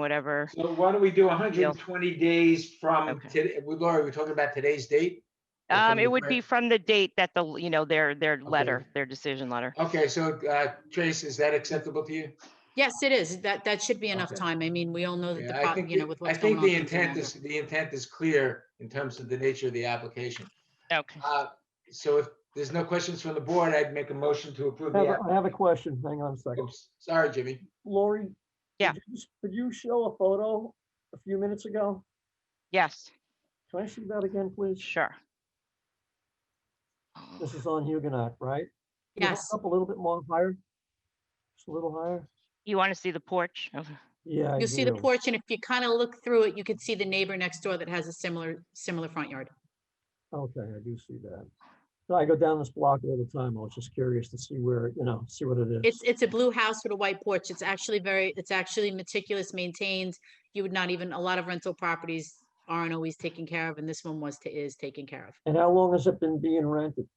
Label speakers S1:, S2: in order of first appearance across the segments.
S1: whatever.
S2: So why don't we do hundred
S1: Deal.
S2: and twenty days from
S1: Okay.
S2: today? we- Laura, we're talking about today's date? Or from
S1: Um,
S2: the
S1: it would
S2: prior-
S1: be from the date that the, you know, their, their letter, their decision letter.
S2: Okay, so uh, Trace, is that acceptable to you?
S3: Yes, it is. That, that should be enough
S2: Okay.
S3: time. I mean, we all know that the,
S2: Yeah, I
S3: pro-
S2: think
S3: you know,
S2: the-
S3: with
S2: I
S3: what's going
S2: think
S3: on.
S2: the
S3: things are
S2: intent
S3: gonna
S2: is, the intent is clear in terms of the nature of the application.
S1: Okay.
S2: Uh, So if there's no questions from the board, I'd make a motion to approve.
S4: I
S2: the
S4: have,
S2: app-
S4: a- I have a question. Hang on a second.
S2: Oops, Sorry, Jimmy.
S4: Lori? could
S1: Yeah.
S4: you s- Could you show a photo a few minutes ago?
S1: Yes,
S4: Can I see that again, please?
S1: sure.
S4: This is on Huguenot, right? Can you hold it
S3: Yes.
S4: Up a little bit more higher? Just a little higher?
S1: You want to see the porch? Okay.
S4: Yeah. I
S3: You'll see the
S4: do.
S3: porch and if you kind of look through it, you could see the neighbor next door that has a similar, similar front yard.
S4: Okay, I do see that. So I go down this block all the time. I was just curious to see where, you know, see what it is.
S3: It's, it's a blue house with a white porch. It's actually very, it's actually meticulous, maintained. You would not even, a lot of rental properties aren't always taken care of and this one was, ta- is taken care of.
S4: And how long has it been being rented?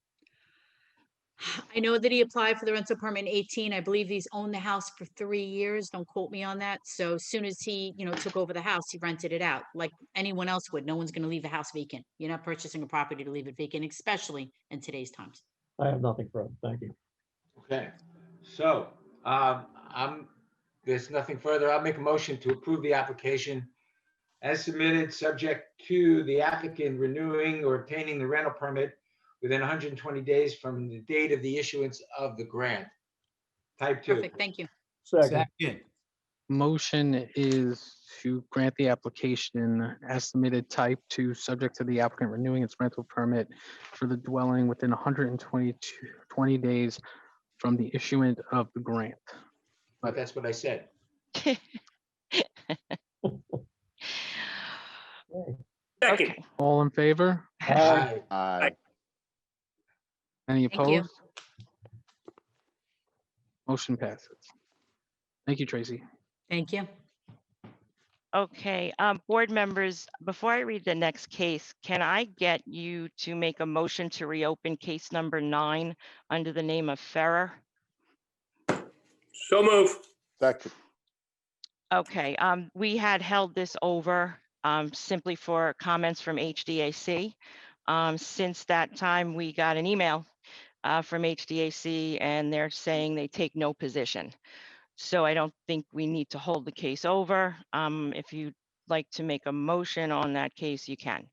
S3: I know that he applied for the rental permit in eighteen. I believe he's owned the house for three years. Don't quote me on that. So as soon as he, you know, took over the house, he rented it out like anyone else would. No one's gonna leave a house vacant. You're not purchasing a property to leave it vacant, especially in today's times.
S4: I have nothing for it. Thank you.
S2: Okay, so um, I'm, there's nothing further. I'll make a motion to approve the application as submitted, subject to the applicant renewing or obtaining the rental permit within 120 days from the date of the issuance of the grant. Type two.
S3: Perfect, thank you.
S4: Second,
S5: Second.
S6: Motion is to grant the application as submitted type two, subject to the applicant renewing its rental permit for the dwelling within 122 20 days from the issuance of the grant.
S2: But that's what I said.
S5: Second.
S1: Okay.
S6: All in favor?
S2: Aye.
S7: Aye.
S6: Any
S3: Thank you.
S6: opposed? Motion passes. Thank you, Tracy.
S3: Thank you.
S1: Okay, um, board members, before I read the next case, can I get you to make a motion to reopen case number nine under the name of Ferrer?
S5: So move.
S7: Second.
S1: Okay, um, we had held this over, um, simply for comments from HDAC. Um, since that time, we got an email, uh, from HDAC and they're saying they take no position. So I don't think we need to hold the case over. Um, if you'd like to make a motion on that case, you can.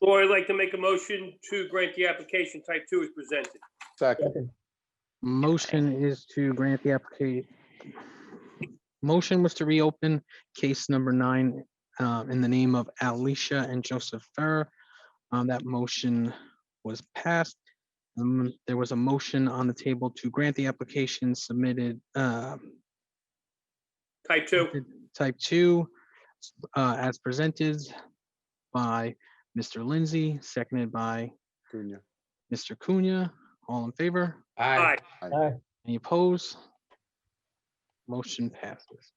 S5: Or I'd like to make a motion to grant the application type two is presented.
S7: Second.
S4: second,
S6: Motion is to grant the application. Motion was to reopen case number nine uh, in the name of Alicia and Joseph Ferrer. Um, That motion was passed. Um, There was a motion on the table to grant the application submitted uh,
S5: Type two.
S6: type two uh, as presented by Mr. Lindsay, seconded by
S7: Cunha.
S6: Mr. Cunha. All in favor?
S2: Aye.
S5: Aye.
S6: Any opposed? Motion passes.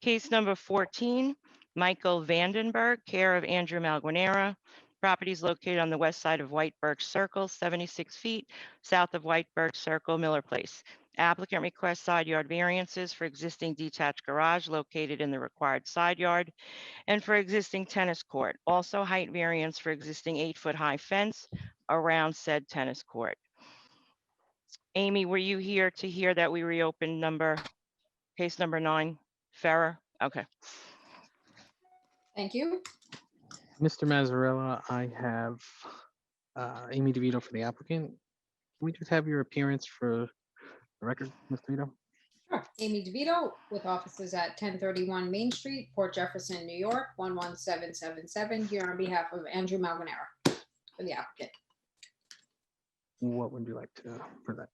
S1: Case number 14, Michael Vandenberg, care of Andrew Malguanera. Property is located on the west side of White Birch Circle, 76 feet south of White Birch Circle, Miller Place. Applicant requests side yard variances for existing detached garage located in the required side yard and for existing tennis court. Also height variance for existing eight-foot-high fence around said tennis court. Amy, were you here to hear that we reopened number, case number nine? Farah, okay.
S8: Thank you.
S6: Mr. Mazzarella, I have uh, Amy DeVito for the applicant. Can we just have your appearance for the record, Ms. DeVito?
S8: Sure. Amy DeVito with offices at 1031 Main Street, Port Jefferson, New York, 11777, here on behalf of Andrew Malguanera for the applicant.
S6: What would you like to present?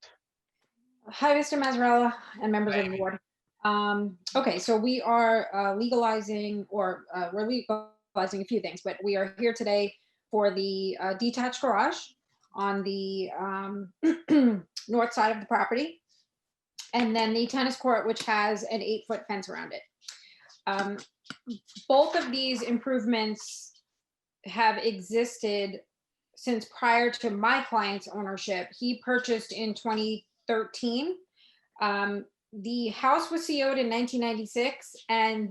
S8: Hi, Mr. Mazzarella and members of the board. Um, Okay, so we are uh, legalizing, or uh, we're legalizing a few things, but we are here today for the uh, detached garage on the um, north side of the property. And then the tennis court, which has an eight-foot fence around it. Um, Both of these improvements have existed since prior to my client's ownership. He purchased in 2013. Um, the house was CO'd in nineteen ninety-six and